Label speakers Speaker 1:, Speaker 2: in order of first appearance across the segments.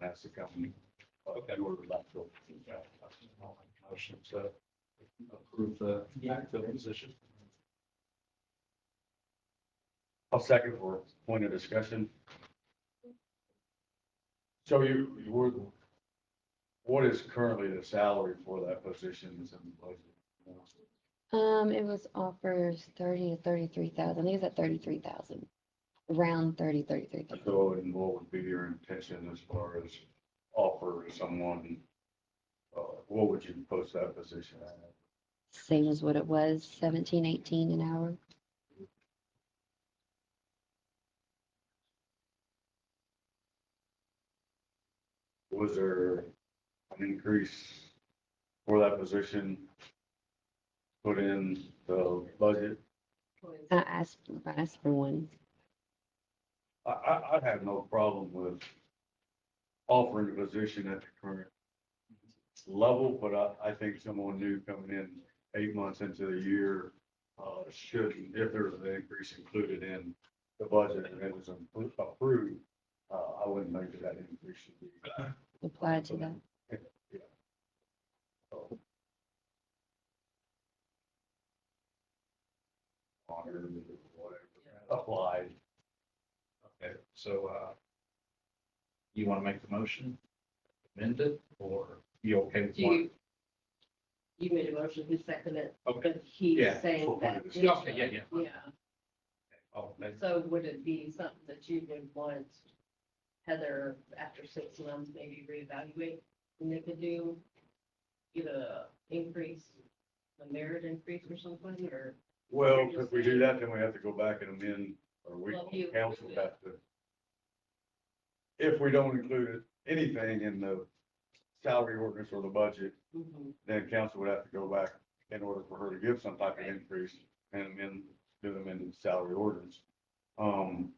Speaker 1: Mexico. Okay. Motion to approve the backfill position. I'll second for point of discussion. So you, you were, what is currently the salary for that position that's in the budget?
Speaker 2: Um, it was offers thirty to thirty-three thousand. I think it's at thirty-three thousand. Around thirty, thirty-three thousand.
Speaker 1: So, and what would be your intention as far as offer someone? Uh, what would you post that position at?
Speaker 2: Same as what it was, seventeen, eighteen an hour.
Speaker 1: Was there an increase for that position? Put in the budget?
Speaker 2: I asked, I asked for one.
Speaker 1: I, I, I'd have no problem with offering the position at the current level, but I, I think someone new coming in eight months into the year, uh, should, if there's an increase included in the budget and it was appro- approved, uh, I wouldn't make that increase should be.
Speaker 2: Apply to that.
Speaker 1: honored or whatever, applied.
Speaker 3: Okay, so, uh, you want to make the motion, amend it, or you okay with one?
Speaker 4: You, you made a motion, he seconded it,
Speaker 3: Okay,
Speaker 4: but he's
Speaker 3: Yeah,
Speaker 1: for
Speaker 4: saying
Speaker 1: one
Speaker 4: that.
Speaker 1: of the-
Speaker 4: this-
Speaker 3: Okay, yeah, yeah.
Speaker 4: Yeah,
Speaker 3: oh, that's-
Speaker 4: so would it be something that you would want Heather, after six months, maybe reevaluate? And they could do, get a increase, a merit increase or something, or?
Speaker 1: Well, if we do that, then we have to go back and amend, or we,
Speaker 4: Well, you-
Speaker 1: council would have to. If we don't include anything in the salary ordinance or the budget,
Speaker 3: Mm-hmm.
Speaker 1: then council would have to go back in order for her to give some type of
Speaker 4: Right.
Speaker 1: increase and amend, do them into the salary ordinance. Um.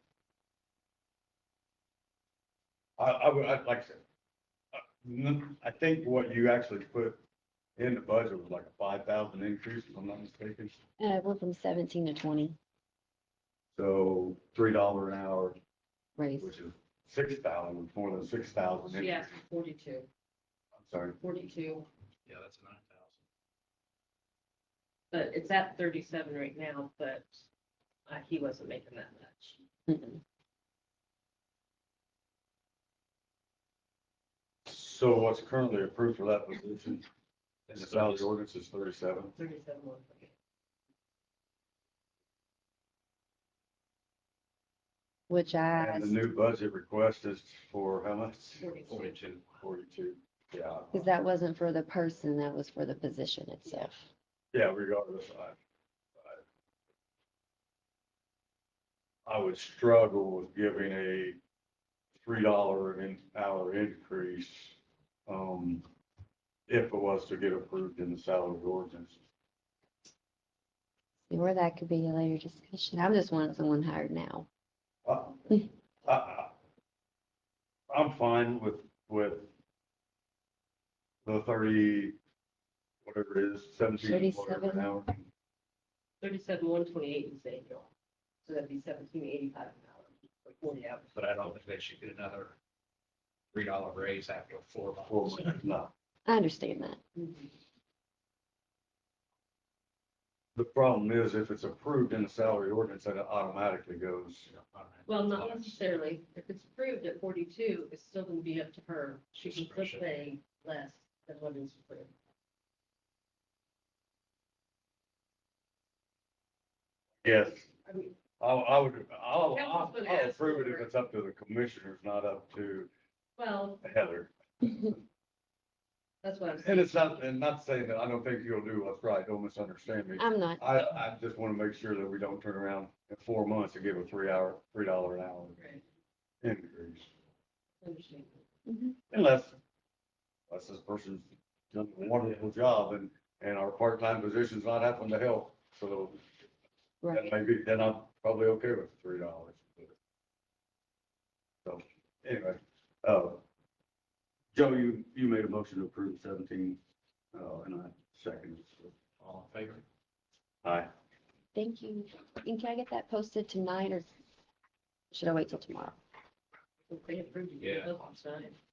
Speaker 1: I, I would, I'd like to, uh, n- I think what you actually put in the budget was like a five thousand increase, if I'm not mistaken.
Speaker 2: Uh, it went from seventeen to twenty
Speaker 1: So three dollar an hour,
Speaker 2: raise.
Speaker 1: which is six thousand, more than six thousand.
Speaker 4: She asked for forty-two,
Speaker 1: I'm sorry,
Speaker 4: forty-two,
Speaker 3: yeah, that's nine thousand.
Speaker 4: but it's at thirty-seven right now, but uh, he wasn't making that much.
Speaker 2: Mm-mm.
Speaker 1: so what's currently approved for that position in the
Speaker 3: That's
Speaker 1: salary
Speaker 3: thirty-
Speaker 1: ordinance is thirty-seven.
Speaker 4: Thirty-seven one, okay.
Speaker 2: Which I
Speaker 1: And the
Speaker 2: asked,
Speaker 1: new budget request is for how much?
Speaker 3: Forty-two.
Speaker 1: Forty-two, yeah,
Speaker 2: because that wasn't for the person, that was for the position itself.
Speaker 1: yeah, regardless, I. I- I would struggle with giving a three dollar an hour increase, um, if it was to get approved in the salary ordinance.
Speaker 2: Or that could be a later discussion. I'm just wanting someone hired now.
Speaker 1: I, I, I'm fine with, with the thirty, whatever it is, seventeen, whatever an hour.
Speaker 4: Thirty-seven, one twenty-eight is annual, so that'd be seventeen eighty-five an hour, or forty hours.
Speaker 3: But I don't think they should get another three dollar raise after four
Speaker 1: Well,
Speaker 3: months.
Speaker 1: no,
Speaker 2: I understand that.
Speaker 1: the problem is if it's approved in the salary ordinance, then it automatically goes.
Speaker 4: Well, not necessarily, if it's approved at forty-two, it's still gonna be up to her, she can still
Speaker 3: Discretion.
Speaker 4: pay less than what is approved.
Speaker 1: Yes,
Speaker 4: I mean,
Speaker 1: I, I would, I'll, I'll
Speaker 4: Councilman
Speaker 1: I'll
Speaker 4: asked
Speaker 1: approve it if
Speaker 4: for-
Speaker 1: it's up to the commissioners, not up to
Speaker 4: well,
Speaker 1: Heather.
Speaker 4: that's what I'm saying.
Speaker 1: And it's not, and not saying that I don't think you'll do what's right, don't misunderstand me.
Speaker 2: I'm not.
Speaker 1: I, I just want to make sure that we don't turn around in four months and give a three hour, three dollar an hour
Speaker 4: Right,
Speaker 1: increase.
Speaker 4: understand.
Speaker 2: Mhm.
Speaker 1: Unless, unless this person's done a wonderful job and, and our part-time position's not having to help. So that
Speaker 2: Right.
Speaker 1: may be, then I'm probably okay with three dollars. So anyway, uh, Joe, you, you made a motion to approve seventeen, uh, and I second.
Speaker 3: All in favor?
Speaker 1: Aye.
Speaker 2: Thank you. And can I get that posted tonight or should I wait till tomorrow?
Speaker 4: If they approved it,
Speaker 3: Yeah.
Speaker 4: they'll sign it.